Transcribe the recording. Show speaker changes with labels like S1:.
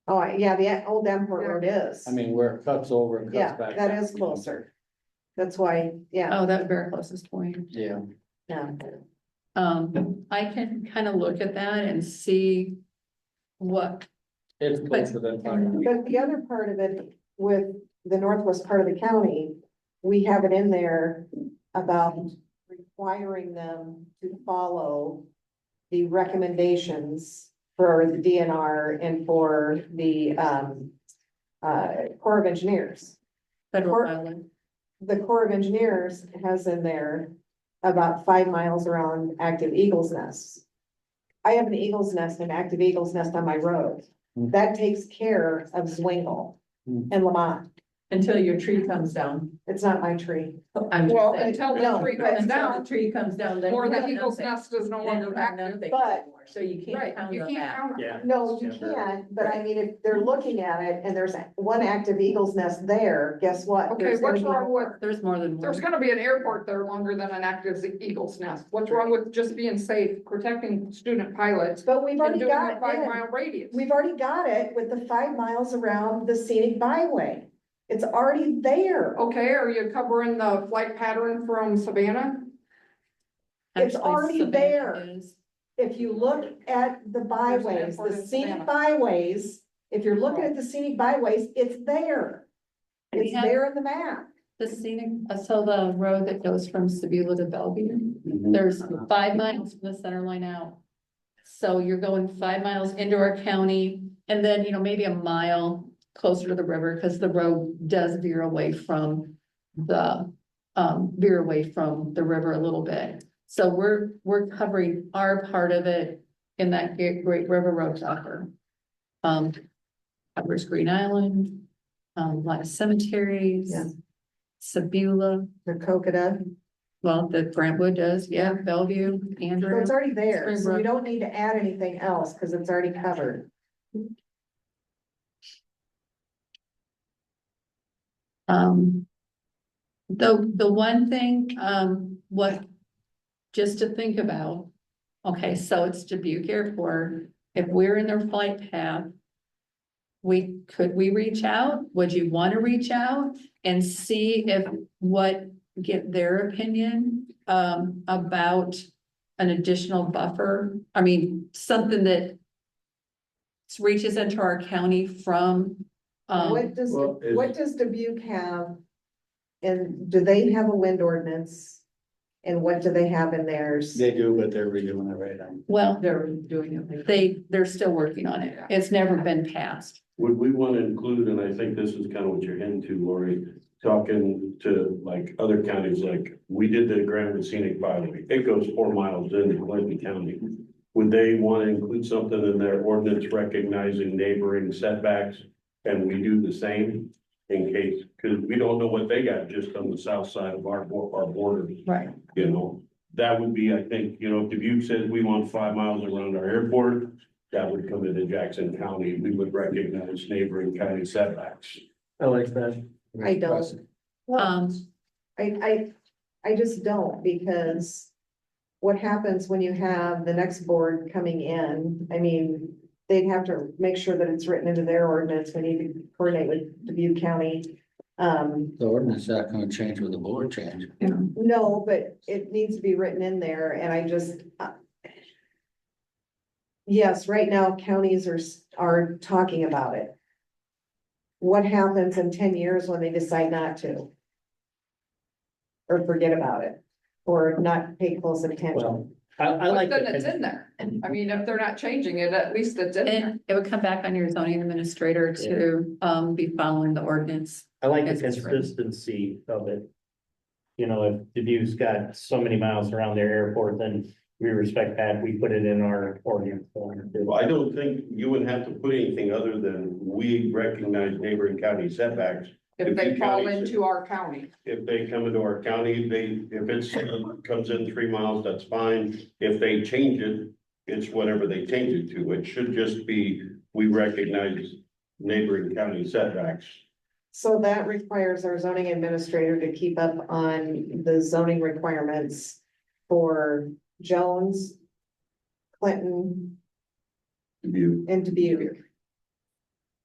S1: Oh, I- yeah, the old Davenport Road is.
S2: I mean, where it cuts over and
S1: Yeah,
S2: cuts back.
S1: that
S2: down.
S1: is closer. That's why, yeah,
S3: Oh, that would be our closest point.
S2: Yeah,
S1: yeah.
S3: Um, I can kind of look at that and see what,
S2: it's closer than. Tucker.
S1: But the other part of it with the northwest part of the county, we have it in there about requiring them to follow the recommendations for the DNR and for the, um, uh, Corps of Engineers.
S3: federal
S1: Or-
S3: filing.
S1: the Corps of Engineers has in there about five miles around active eagles nests. I have an eagles nest, an active eagles nest on my road.
S2: Hmm.
S1: That takes care of Zwingle
S2: Hmm.
S1: and Lamont.
S4: Until your tree comes down.
S1: It's not my tree.
S4: I'm just
S5: Well,
S4: saying.
S5: until
S1: No,
S5: the tree
S4: Until
S5: comes down,
S4: the Tree comes down, then.
S5: or
S4: you
S5: the
S4: have
S5: eagle's
S4: nothing.
S5: nest is no
S4: Then you
S5: longer
S4: have
S5: active.
S4: nothing
S1: But-
S4: anymore, So you
S5: Right,
S4: can't count
S5: you
S4: on
S5: can't
S4: that.
S5: count on it.
S2: Yeah.
S1: No, you
S2: it's timber.
S1: can't, but I mean, if they're looking at it and there's one active eagle's nest there, guess what?
S5: Okay,
S1: There's gonna
S5: what's
S1: be
S5: wrong with,
S1: more.
S3: There's more than one.
S5: there's gonna be an airport there longer than an active eagle's nest. What's wrong with just being safe, protecting student pilots?
S1: But we've
S5: And
S1: already
S5: doing
S1: got
S5: a
S1: it
S5: five
S1: in.
S5: mile radius.
S1: We've already got it with the five miles around the scenic byway. It's already there.
S5: Okay, are you covering the flight pattern from Savannah?
S1: It's
S3: Actually,
S1: already
S3: Savannah
S1: there.
S3: is.
S1: if you look at the byways,
S5: airport
S1: the
S5: in
S1: scenic
S5: Savannah.
S1: byways, if you're looking at the scenic byways, it's there.
S3: We
S1: It's
S3: have-
S1: there in the map.
S3: The scenic, uh, so the road that goes from Sebula to Bellevue,
S2: Mhm.
S3: there's five miles from the center line out. So you're going five miles into our county and then, you know, maybe a mile closer to the river because the road does veer away from the, um, veer away from the river a little bit. So we're, we're covering our part of it in that Great Great River Road Tucker. Um, covers Green Island, um, a lot of cemeteries.
S1: Yeah.
S3: Sebula,
S1: The Coconut,
S3: well, the Brentwood does, yeah, Bellevue,
S1: so
S3: Andrew.
S1: it's already there, so we
S3: Springbrook.
S1: don't need to add anything else because it's already covered.
S3: Um. The, the one thing, um, what, just to think about, okay, so it's Dubuque Airport, if we're in their flight path. We, could we reach out? Would you want to reach out and see if what, get their opinion, um, about an additional buffer? I mean, something that reaches into our county from, um,
S1: What does,
S2: Well, is-
S1: what does Dubuque have? And do they have a wind ordinance? And what do they have in theirs?
S2: They do, but they're redoing it right now.
S3: well.
S4: They're doing it. like-
S3: They, they're still working on it. It's never been passed.
S6: Would we want to include, and I think this is kind of what you're heading to, Lori, talking to like other counties, like, we did the Grand Scenic Byway. It goes four miles into Clinton County. Would they want to include something in their ordinance recognizing neighboring setbacks? And we do the same in case, because we don't know what they got just on the south side of our, bo- our borders
S3: Right.
S6: you know, that would be, I think, you know, if Dubuque says we want five miles around our airport, that would come into Jackson County, we would recognize neighboring county setbacks.
S2: I like that.
S1: I don't.
S3: Um,
S1: I, I, I just don't because what happens when you have the next board coming in, I mean, they'd have to make sure that it's written into their ordinance. We need to coordinate with Dubuque County. Um,
S7: The ordinance not gonna change with the board change.
S1: no, but it needs to be written in there and I just, uh, yes, right now counties are, s- are talking about it. What happens in ten years when they decide not to? Or forget about it, or not pay close attention?
S2: Well, I, I
S5: But
S2: like.
S5: then
S2: the-
S5: it's in there. I mean, if they're not changing it, at least it's in there.
S3: and it would come back on your zoning administrator to, um, be following the ordinance.
S8: I like the
S3: As it's written.
S8: consistency of it. You know, if Dubuque's got so many miles around their airport, then we respect that, we put it in our ordinance. form.
S6: Well, I don't think you would have to put anything other than we recognize neighboring county setbacks.
S5: If they
S6: Dubuque
S5: fall
S6: County-
S5: into our county.
S6: If they come into our county, they, if it's, comes in three miles, that's fine. If they change it, it's whatever they change it to. It should just be, we recognize neighboring county setbacks.
S1: So that requires our zoning administrator to keep up on the zoning requirements for Jones, Clinton,
S6: Dubuque.
S1: and Dubuque.